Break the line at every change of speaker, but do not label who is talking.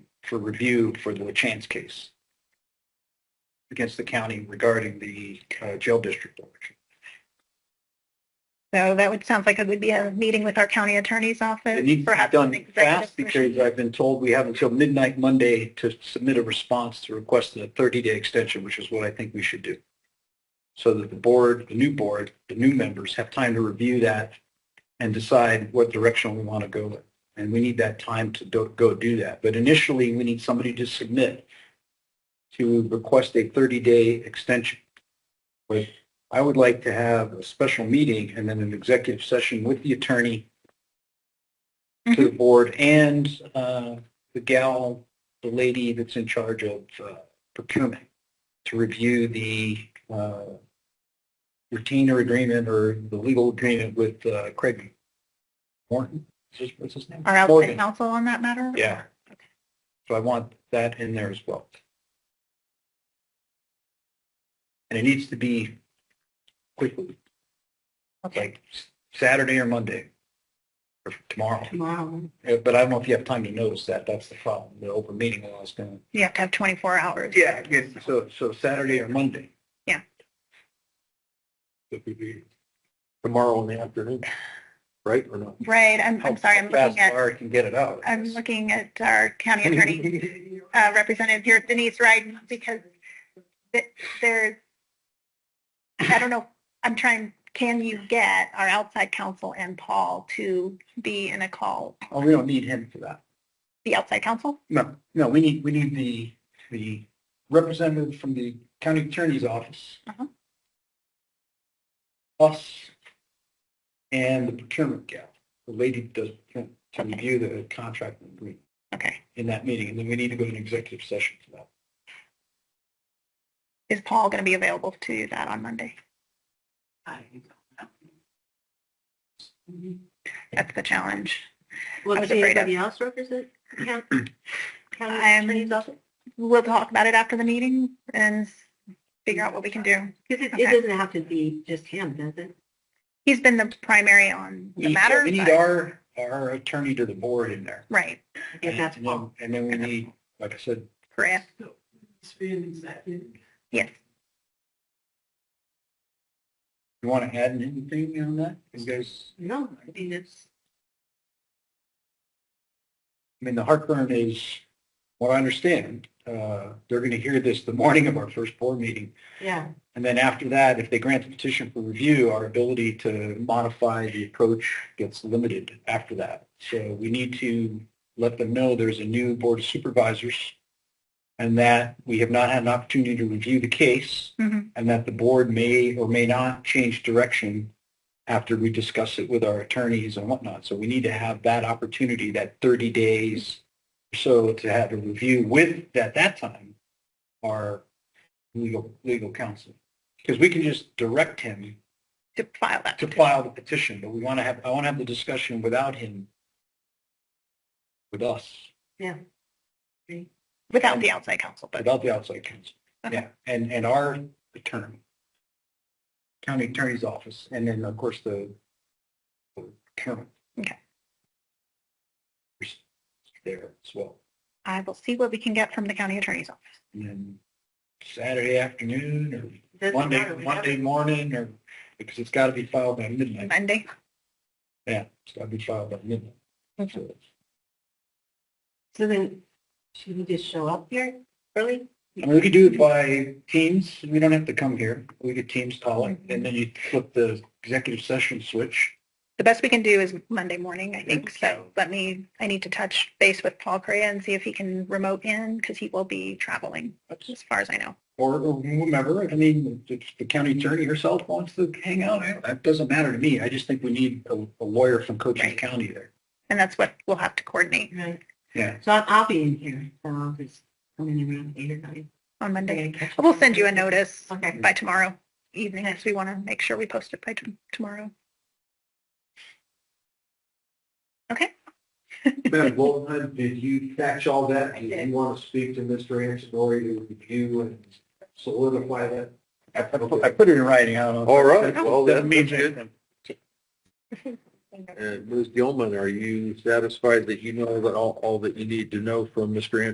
for review for the Chance case against the county regarding the uh, jail district election.
So that would, sounds like it would be a meeting with our county attorney's
It
office,
needs to be
perhaps an
done
executive
fast
session.
because uh, I've been told we have until midnight Monday to submit a response to request a 30-day extension, which is what I think we should do. So that the board, the new board, the new members have time to review that and decide what direction we want to go with. And we need that time to do- go do that. But initially, we need somebody to submit to request a 30-day extension. But I would like to have a special meeting and then an executive session with the attorney to the board and uh, the gal, the lady that's in charge of uh, procurement to review the uh, retainer agreement or the legal agreement with uh, Craig Morton. Is this- What's his name?
Our outside
Morgan.
counsel on that matter?
Yeah. So I want that in there as well. And it needs to be quickly,
Okay.
like Saturday or Monday or tomorrow.
Tomorrow.
Uh, But I don't know if you have time to notice that. That's the problem. The open meeting law is going
You have to have 24 hours.
to. Yeah, it's- so, so Saturday or Monday.
Yeah.
That would be tomorrow in the afternoon, right, or not?
Right, I'm, I'm sorry, I'm looking
Fast
at,
fire can get it out.
I'm looking at our county attorney uh, representative here, Denise Ryden, because th- there's, I don't know, I'm trying, can you get our outside counsel and Paul to be in a call?
Oh, we don't need him for that.
The outside counsel?
No, no, we need, we need the, the representative from the county attorney's office.
Uh-huh.
Us and the procurement gal, the lady that does, procurement, to
Okay.
review the contract and agreement.
Okay.
in that meeting, and then we need to go to an executive session for that.
Is Paul going to be available to do that on Monday? That's the challenge. I
Will
was
she
afraid of-
anybody else represent? count-
I'm-
County attorney's office?
We'll talk about it after the meeting and figure out what we can do.
Because it,
Okay.
it doesn't have to be just him, does it?
He's been the primary on the
We-
matter.
We need
but-
our, our attorney to the board in there.
Right,
I guess that's
And then-
Paul.
And then we need, like I said,
correct,
It's being executive.
yes.
you want to add anything on that? You guys,
No, I mean, it's,
I mean, the heartburn is, what I understand, uh, they're going to hear this the morning of our first board meeting.
yeah,
And then after that, if they grant the petition for review, our ability to modify the approach gets limited after that. So we need to let them know there's a new board of supervisors and that we have not had an opportunity to review the case
Mhm.
and that the board may or may not change direction after we discuss it with our attorneys and whatnot. So we need to have that opportunity, that 30 days or so to have a review with, at that time, our legal, legal counsel. Because we can just direct him
To file that.
to file the petition, but we want to have, I want to have the discussion without him, with us,
Without the outside counsel, but
without the outside counsel. Yeah, and, and our attorney, county attorney's office, and then, of course, the the chairman.
Okay.
There as well.
I will see what we can get from the county attorney's office.
And then Saturday afternoon or
it doesn't
Monday,
matter. We have
Monday
it.
morning, or, because it's got to be filed by midnight.
Monday,
Yeah, it's got to be filed by midnight.
Okay.
So-
So then, should we just show up here early?
I mean, we could do it by teams. We don't have to come here. We could teams call it, and then you flip the executive session switch.
the best we can do is Monday morning, I think, so let me, I need to touch base with Paul Correa and see if he can remote in, because he will be traveling, as far as I know.
Or or whomever, I mean, if the county attorney herself wants to hang out, I- that doesn't matter to me. I just think we need a a lawyer from Cochise
Right.
County there.
And that's what we'll have to coordinate
Right.
Yeah.
So I'll, I'll be in here, so I'll just come in around eight or nine.
on
I
Monday.
gotta catch
We'll send
up.
you a notice
Okay.
by tomorrow evening, because we want to make sure we post it by t- tomorrow.
Madam Wolfman, did you catch all that? Do
did.
you want to speak to Mr. Ansorori to review and solidify that?
I I put I put it in writing, I don't know. All
right, well, that-
Doesn't mean
that's good.
anything.
And Ms. Gilman, are you satisfied that you know that all, all that you need to know from Mr. Ansorori